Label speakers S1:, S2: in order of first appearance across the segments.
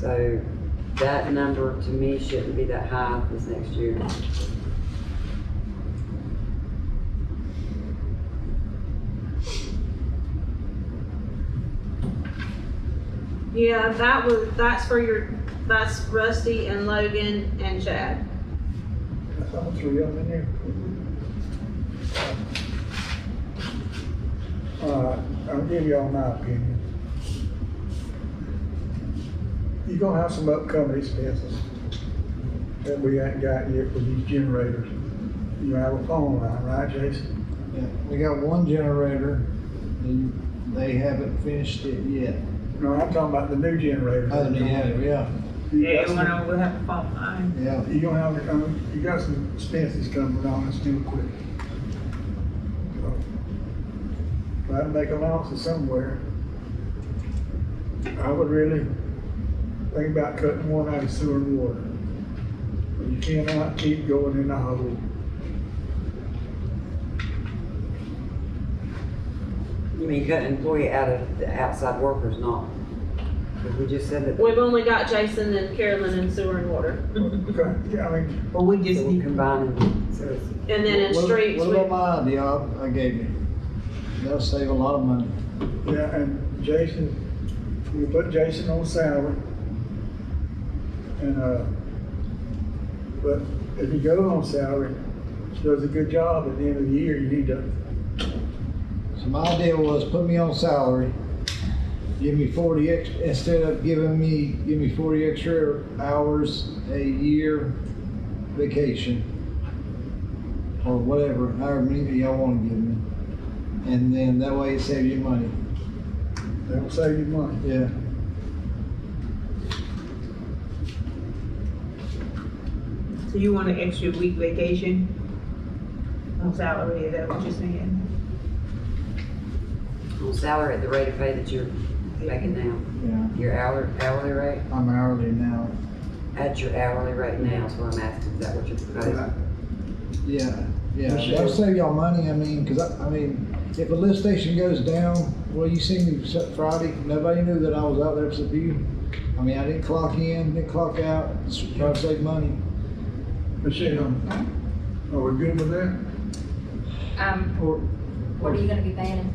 S1: So that number to me shouldn't be that high this next year.
S2: Yeah, that was, that's for your, that's Rusty and Logan and Chad.
S3: That's all three of them in there. Uh, I'll give y'all my opinion. You're gonna have some upcoming expenses that we ain't got yet with these generators. You have a phone line, right, Jason?
S4: Yeah, we got one generator, and they haven't finished it yet.
S3: No, I'm talking about Oh, the new generator.
S4: Other than that, yeah,
S3: You
S5: Yeah,
S3: got some-
S5: when I would have a phone line.
S4: yeah.
S3: You gonna have, to come- you got some expenses coming on, let's do it quick. Try to make allowances somewhere. I would really think about cutting one out of sewer and water. But You cannot keep going in the hole.
S1: You mean cut employee out of the outside workers, not? Because we just said that
S2: We've only got Jason and Carolyn and sewer and water.
S3: Okay, yeah, I mean,
S5: But we
S1: we
S5: just
S1: are
S5: need,
S1: combining, so it's
S2: And then in
S4: What-
S2: streets,
S4: What
S2: we,
S4: about my idea I I gave you? That'll save a lot of money.
S3: yeah, and Jason, you put Jason on salary. And, uh, but if you go on salary, she does a good job at the end of the year, you need to
S4: So my idea was put me on salary, give me forty ex, instead of giving me, give me forty extra hours a year vacation. Or whatever, however many y'all wanna give me. And then that way it saves you money,
S3: That'll save you money.
S4: yeah.
S5: so you want an extra week vacation? On salary, is that what you're saying?
S1: on salary at the rate of pay that you're making now.
S4: Yeah,
S1: Your hour, hourly rate,
S4: I'm hourly now,
S1: at your hourly rate now is what I'm asking, is that what you're proposing?
S4: yeah, yeah,
S1: Yes, you
S4: that'll
S1: do.
S4: save y'all money, I mean, cause I, I mean, if a lift station goes down, well, you see me s- Friday, nobody knew that I was out there except you. I mean, I didn't clock in, didn't clock out, it's trying to save money.
S3: Michelle, uh, are we good with that?
S6: Um,
S4: Or
S6: what are you gonna be banning?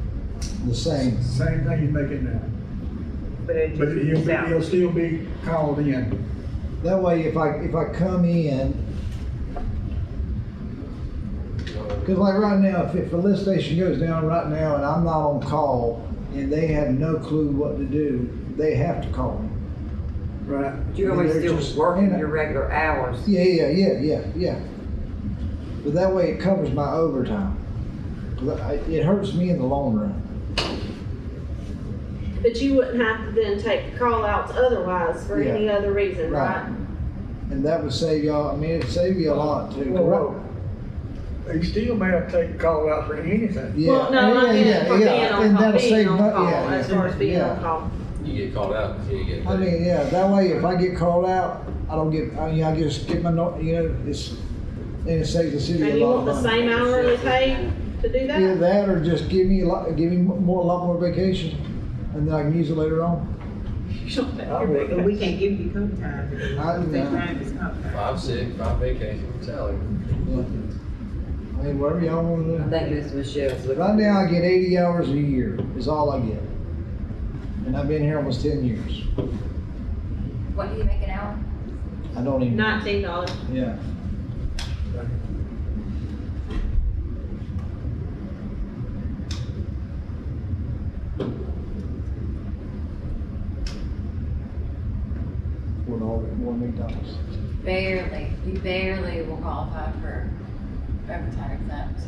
S4: the same.
S3: Same thing you make it now.
S5: But it
S3: But
S5: just be
S3: you'll,
S5: salary.
S3: you'll still be called in.
S4: That way, if I, if I come in, cause like right now, if, if a lift station goes down right now and I'm not on call and they have no clue what to do, they have to call me.
S3: Right.
S1: You're always
S4: They're
S1: still
S4: just-
S1: working your regular hours.
S4: Yeah, yeah, yeah, yeah, yeah. But that way it covers my overtime. 'Cause I- It hurts me in the long run.
S2: but you wouldn't have to then take call outs otherwise for
S4: Yeah.
S2: any other reason,
S4: Right.
S2: right?
S4: And that would save y'all, I mean, it'd save you a lot too.
S3: Whoa, whoa. You still may have to take a call out for anything.
S4: Yeah,
S2: Well, no, I
S4: yeah,
S2: meant
S4: yeah,
S2: for
S4: yeah.
S2: being on
S4: And
S2: call,
S4: that'll save
S2: being on
S4: mon-
S2: call,
S4: yeah,
S2: as far as being
S4: yeah.
S2: on call.
S7: You get called out because you ain't getting
S4: I
S7: paid.
S4: mean, yeah, that way if I get called out, I don't get, I mean, I just get my, no- you know, it's, and it saves the city
S2: And
S4: a
S2: you
S4: lot
S2: want the
S4: of money.
S2: same hourly pay to do
S4: Either
S2: that?
S4: that or just give me a lot, give me more, a lot more vacation and then I can use it later on.
S3: I would.
S5: We can't give you comp time.
S4: I
S5: because
S4: know.
S5: State time is comp time.
S7: Five sick, five vacation, salary.
S4: Yeah. I mean, whatever y'all wanna do.
S1: I think Miss Michelle's looking.
S4: Right now, I get eighty hours a year is all I get. And I've been here almost ten years.
S6: What do you make an hour?
S4: I don't even,
S2: Nineteen dollars.
S4: yeah. One all, one McDonald's.
S6: Barely, you barely will qualify for overtime exempt.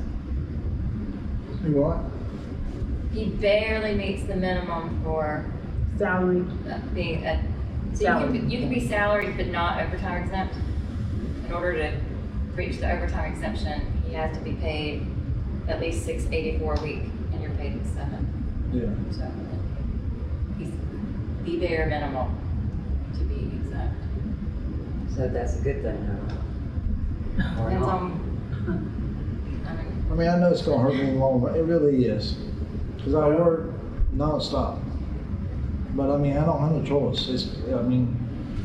S3: You what?
S6: He barely meets the minimum for
S5: Salary,
S6: uh, being a, so you can, be- you can be salaried but not overtime exempt. In order to reach the overtime exemption, he has to be paid at least six eighty-four a week, and you're paid at seven,
S4: Yeah.
S6: so. He's the bare minimum to be exempt.
S1: So that's a good thing, huh? Or
S6: Depends
S1: not.
S6: on, I mean,
S4: I mean, I know it's gonna hurt me in the long run. It really is. Cause I work nonstop. But I mean, I don't have a choice. It's, I mean,